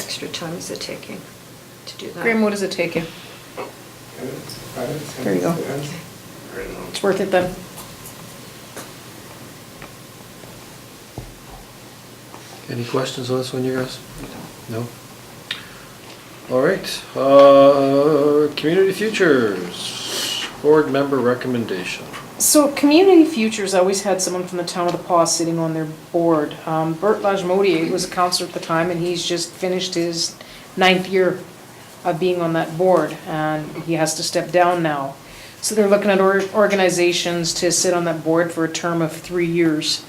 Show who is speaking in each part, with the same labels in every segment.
Speaker 1: extra time is it taking to do that?
Speaker 2: Graham, what does it take you? There you go. It's worth it then.
Speaker 3: Any questions on this one, you guys? No? All right, uh, Community Futures, board member recommendation.
Speaker 2: So Community Futures always had someone from the town of the Paw sitting on their board. Um, Bert Lajmodier was a counselor at the time, and he's just finished his ninth year of being on that board, and he has to step down now. So they're looking at or- organizations to sit on that board for a term of three years.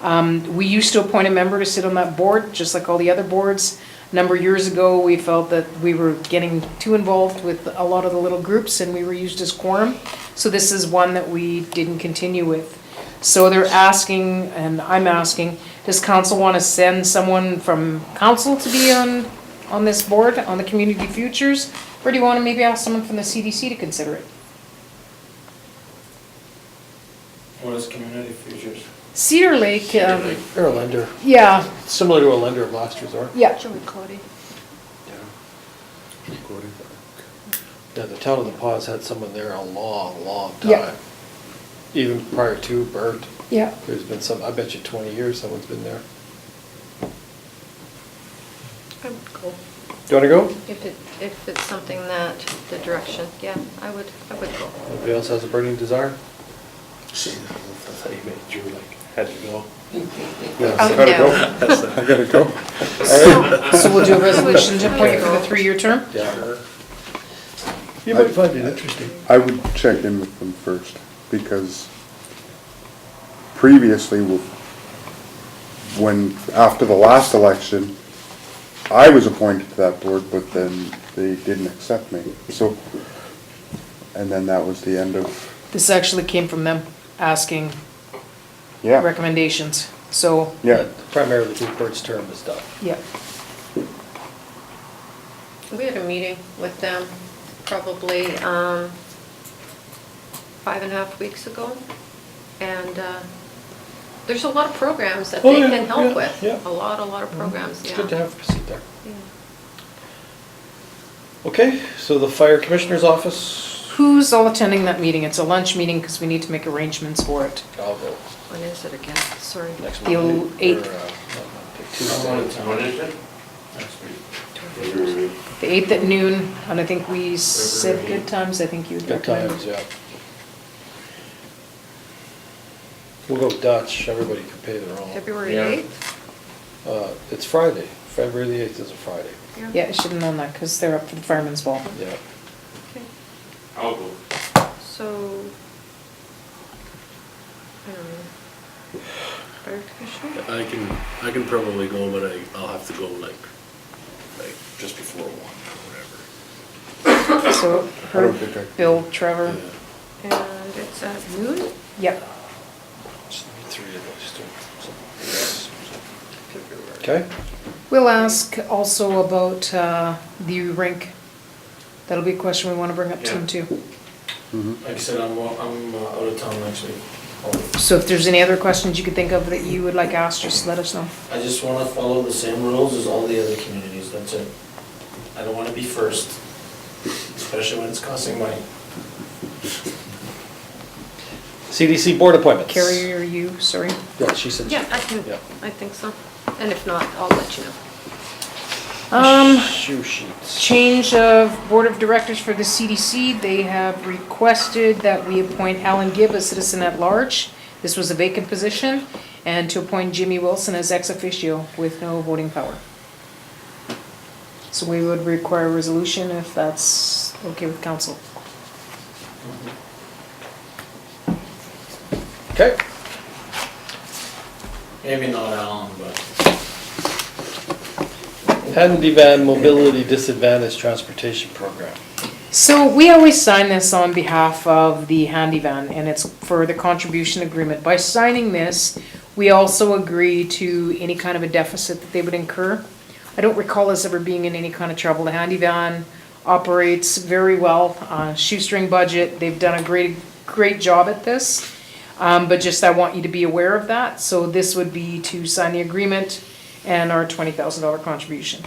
Speaker 2: Um, We used to appoint a member to sit on that board, just like all the other boards. A Number of years ago, we felt that we were getting too involved with a lot of the little groups and we were used as quorum. So this is one that we didn't continue with. So they're asking, and I'm asking, does council want to send someone from council to be on, on this board, on the community futures? Or do you want to maybe ask someone from the CDC to consider it?
Speaker 4: What is community futures?
Speaker 2: Cedar Lake, um,
Speaker 3: They're a lender,
Speaker 2: yeah,
Speaker 3: similar to a lender of last resort.
Speaker 2: yeah.
Speaker 3: Yeah, the town of the Paws had someone there a long, long
Speaker 2: Yeah.
Speaker 3: time. Even prior to Bert,
Speaker 2: Yeah.
Speaker 3: there's been some, I bet you twenty years someone's been there.
Speaker 1: I would go.
Speaker 3: Do you wanna go?
Speaker 1: If it, if it's something that, the direction, yeah, I would, I would go.
Speaker 3: Anybody else has a burning desire?
Speaker 2: Oh,
Speaker 1: gotta go.
Speaker 5: I gotta go.
Speaker 2: So we'll do a resolution to appoint you for the
Speaker 1: Okay.
Speaker 2: three-year term?
Speaker 3: Yeah.
Speaker 5: You might
Speaker 3: find it interesting.
Speaker 5: I would check in with them first, because previously, w- when, after the last election, I was appointed to that board, but then they didn't accept me, so, and then that was the end of,
Speaker 2: This actually came from them asking
Speaker 5: yeah,
Speaker 2: recommendations, so,
Speaker 5: yeah.
Speaker 3: Primarily because Bert's term is done.
Speaker 2: yeah.
Speaker 1: We had a meeting with them probably um, five and a half weeks ago, and uh, there's a lot of programs that
Speaker 3: Oh,
Speaker 1: they
Speaker 3: yeah,
Speaker 1: can
Speaker 3: yeah,
Speaker 1: help with.
Speaker 3: yeah. Mm-hmm.
Speaker 1: A lot, a lot of programs,
Speaker 3: It's
Speaker 1: yeah.
Speaker 3: good to have a seat there.
Speaker 1: Yeah.
Speaker 3: Okay, so the fire commissioner's office,
Speaker 2: Who's all attending that meeting? It's a lunch meeting because we need to make arrangements for it.
Speaker 3: I'll go
Speaker 1: When is it again? Sorry.
Speaker 3: next
Speaker 2: The
Speaker 3: Monday.
Speaker 2: eighth.
Speaker 3: or, uh, not Monday,
Speaker 4: I wanted
Speaker 3: Tuesday.
Speaker 4: to- What is it? Next week.
Speaker 2: The 8th at noon, and I think we said good times, I think you'd
Speaker 3: Good
Speaker 2: recommend.
Speaker 3: times, yeah. We'll go Dutch, everybody can pay their own.
Speaker 1: February
Speaker 4: Yeah.
Speaker 1: 8th?
Speaker 3: Uh, It's Friday, February the eighth is a Friday,
Speaker 2: Yeah, I should have known that because they're up for the firemen's ball.
Speaker 3: yeah.
Speaker 1: Okay.
Speaker 4: I'll go.
Speaker 1: So, I don't know. Fire commissioner?
Speaker 6: I can, I can probably go, but I, I'll have to go like, like just before one or
Speaker 2: So
Speaker 5: I don't
Speaker 2: Herb,
Speaker 5: think I-
Speaker 2: Bill, Trevor,
Speaker 6: whatever.
Speaker 1: And it's at noon?
Speaker 2: yep.
Speaker 6: Uh,
Speaker 3: Just need Three of us, too. Okay,
Speaker 2: We'll ask also about uh, the rink. That'll be a question we want to bring up to them too.
Speaker 5: mhm.
Speaker 4: Like I said, I'm, wa- I'm uh, out of town next week. I'll-
Speaker 2: So if there's any other questions you could think of that you would like asked, just let us know.
Speaker 4: I just wanna follow the same rules as all the other communities, that's it. I don't wanna be first, especially when it's costing money.
Speaker 3: CDC board appointments.
Speaker 2: Carrie, are you, sorry?
Speaker 3: Yeah, she said. she-
Speaker 1: Yeah, I can,
Speaker 3: Yeah.
Speaker 1: I think so. And if not, I'll let you know.
Speaker 2: Um,
Speaker 3: Shoe sheets.
Speaker 2: Change of Board of Directors for the CDC. They have requested that we appoint Alan Gibb as citizen at large. This was a vacant position, and to appoint Jimmy Wilson as ex officio with no voting power. So we would require a resolution if that's okay with council.
Speaker 3: Okay.
Speaker 4: Maybe not Alan, but.
Speaker 3: Handivan Mobility Disadvantaged Transportation Program.
Speaker 2: So we always sign this on behalf of the handy van and it's for the contribution agreement. By signing this, we also agree to any kind of a deficit that they would incur. I don't recall us ever being in any kind of trouble. The handy van operates very well, uh, shoestring budget. They've done a great, great job at this. Um, but just I want you to be aware of that. So this would be to sign the agreement and our twenty thousand dollar contribution.